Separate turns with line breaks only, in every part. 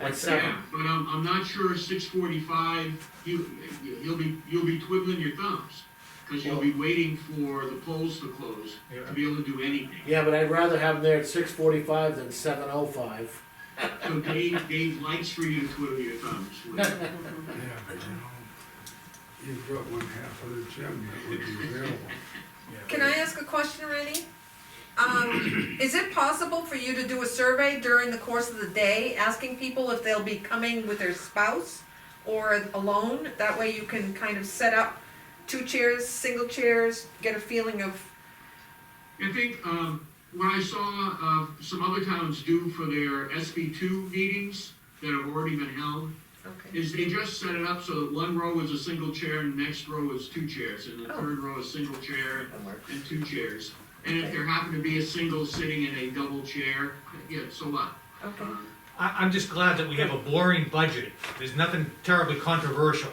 at
Yeah,
seven.
but I'm, I'm not sure six forty-five, you, you'll be, you'll be twiddling your thumbs, cause you'll be waiting for the polls to close, to be able to do anything.
Yeah, but I'd rather have them there at six forty-five than seven oh five.
So Dave, Dave likes for you to twiddle your thumbs. Lou.
Yeah, but you know, you've got one half of the gym that would be available.
Can I ask a question, Rennie? Um, is it possible for you to do a survey during the course of the day, asking people if they'll be coming with their spouse or alone? That way you can kind of set up two chairs, single chairs, get a feeling of,
I think, um, what I saw, uh, some other towns do for their SB two meetings that have already been held,
okay,
is they just set it up so that one row is a single chair and the next row is two chairs, and the
Oh.
third row is single chair
that works.
and two chairs. And if there happened to be a single sitting in a double chair, yeah, so what?
Okay,
Uh,
I, I'm just glad that we have a boring budget. There's nothing terribly controversial.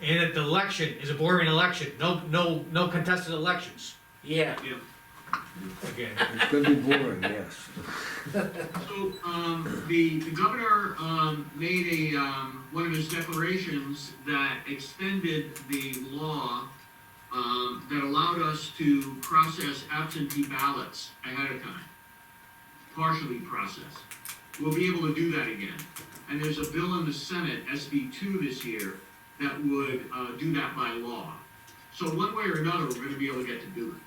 And that the election is a boring election. No, no, no contested elections
Yeah,
Yeah,
again.
It could be boring, yes.
so, um, the, the governor, um, made a, um, one of his declarations that extended the law, um, that allowed us to process absentee ballots ahead of time, partially processed. We'll be able to do that again. And there's a bill in the Senate, SB two this year, that would, uh, do that by law. So one way or another, we're gonna be able to get to do it.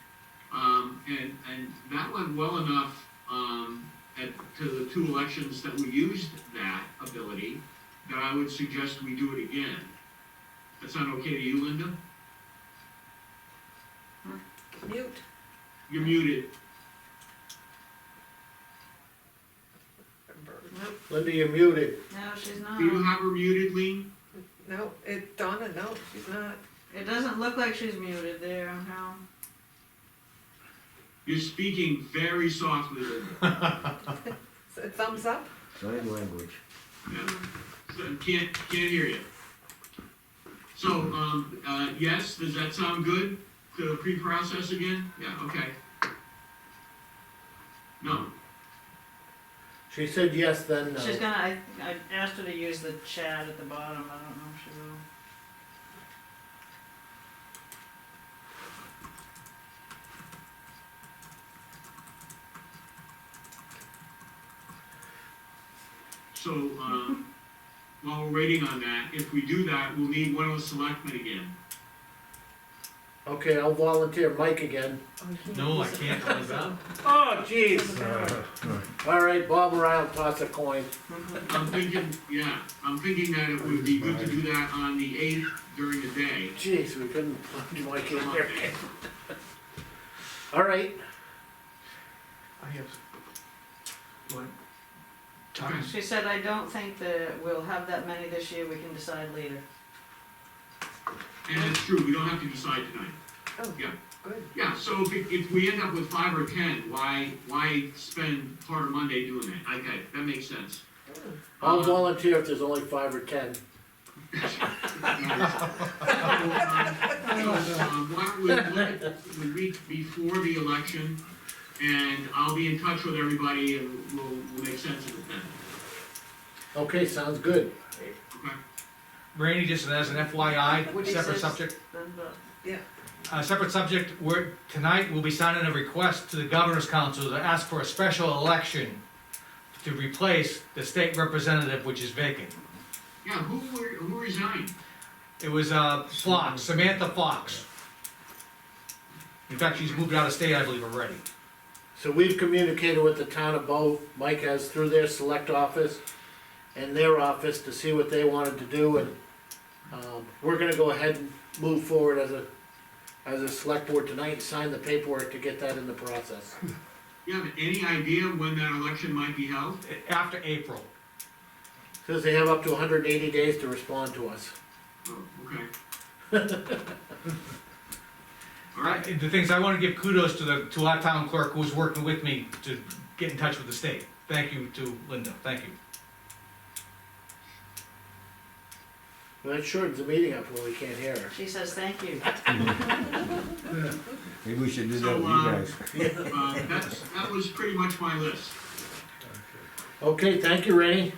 Um, and, and that went well enough, um, at, to the two elections that we used that ability, that I would suggest we do it again. That sound okay to you, Linda?
mute.
You're muted.
Linda, you're muted.
No, she's
Do you
not.
have her muted, Lean?
No, it, Donna, no, she's not.
It doesn't look like she's muted there, no.
You're speaking very softly, Linda.
Thumbs up?
Sign language.
Yeah. So, Can't, can't hear you. So, um, uh, yes, does that sound good to pre-process again? Yeah, okay. No,
She said yes, then no.
She's gonna, I, I asked her to use the chat at the bottom, I don't know if she will.
so, um, while we're waiting on that, if we do that, we'll need one of the selectmen again.
Okay, I'll volunteer Mike again.
No, I can't believe that.
Oh, jeez. All right, bob around, toss a coin.
I'm thinking, yeah, I'm thinking that it would be good to do that on the eighth during the day.
Jeez, we couldn't plunge Mike in there. All right,
I have. What?
She said, I don't think that we'll have that many this year, we can decide later.
And it's true, we don't have to decide tonight.
Oh,
Yeah.
good.
Yeah, so if, it- if we end up with five or ten, why, why spend part of Monday doing that? Okay, that makes sense.
I'll
Uh,
volunteer if there's only five or ten.
Um, Why don't we look at the week before the election, and I'll be in touch with everybody, and we'll, we'll make sense of it then.
Okay, sounds good.
Okay?
Randy, just as an FYI,
Which
separate
is-
subject,
Then, but-
uh, separate subject, we're, tonight we'll be signing a request to the governor's council to ask for a special election to replace the state representative, which is vacant.
Yeah, who, were- who resigned?
It was, uh, Fox, Samantha Fox. In fact, she's moved out of state, I believe, already.
So we've communicated with the town of Bo, Mike has through their select office and their office to see what they wanted to do and, um, we're gonna go ahead and move forward as a, as a select board tonight and sign the paperwork to get that in the process.
You have any idea when that election might be held?
After April.
Says they have up to hundred and eighty days to respond to us.
Oh, okay. All
I-
right,
The things, I wanna give kudos to the, to our town clerk who's working with me to get in touch with the state. Thank you to Linda, thank you.
Well, That shortens the meeting up when we can't hear her.
She says, thank you.
Maybe we should do
So,
that with you
uh,
guys.
uh, that's, that was pretty much my list.
Okay, thank you, Rennie.